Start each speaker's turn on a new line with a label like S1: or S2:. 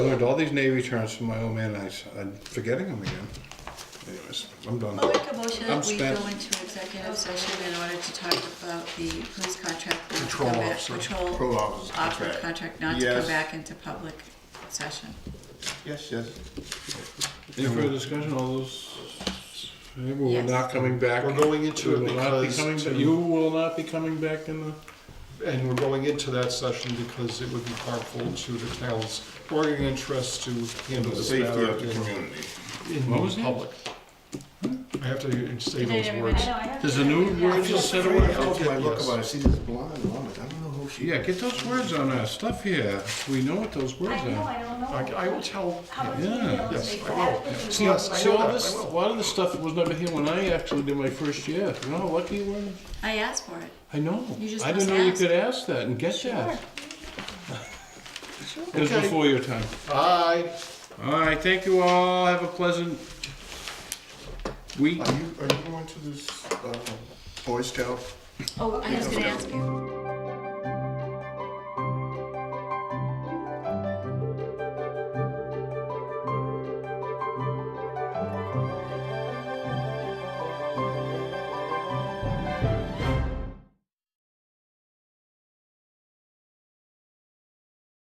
S1: I learned all these Navy terms from my old man, and I s- I'm forgetting them again. Anyways, I'm done.
S2: I'll make a motion
S1: I'm
S2: that we go
S1: spent.
S2: into executive session in order to talk about the police contract. not to
S3: Patrol
S2: come back-
S3: officer.
S2: Patrol
S3: Patrol officer's
S2: officer
S3: contract.
S2: contract, not to
S3: Yes.
S2: come back into public session.
S3: Yes, yes.
S1: Any further discussion, all those, Okay, we will
S2: Yes.
S1: not coming back.
S3: We're going into
S1: We
S3: it
S1: will not be
S3: because
S1: coming,
S3: to-
S1: you will not be coming back in the,
S3: And we're going into that session because it would be harmful to the town's bargaining interests to handle this matter in
S1: community. What was
S3: in
S1: that?
S3: public. I have to say those
S4: everybody.
S3: words.
S1: There's a new word you said.
S5: I
S1: about-
S5: told you I look about, I see this blonde woman, I don't know who she
S1: Yeah,
S5: is.
S1: get those words on our stuff here. We know what those words
S4: I know,
S1: are.
S4: I don't
S3: I
S4: know.
S3: I will tell,
S4: How much
S1: Yeah.
S4: detail
S3: Yes, I
S4: is
S3: will.
S4: that?
S3: See, I-
S1: See, all
S3: that,
S1: this,
S3: I
S1: a
S3: will.
S1: lot of the stuff was never here when I actually did my first year. You know how lucky you were?
S2: I asked for it.
S1: I know.
S2: You just
S1: I didn't
S2: must
S1: know you
S2: ask.
S1: could ask that and get that. It was
S3: Okay.
S1: before your time.
S3: I,
S1: All right, thank you all. Have a pleasant week.
S5: Are you, are you going to this, uh, Boy Scout
S2: Oh, I was gonna ask you.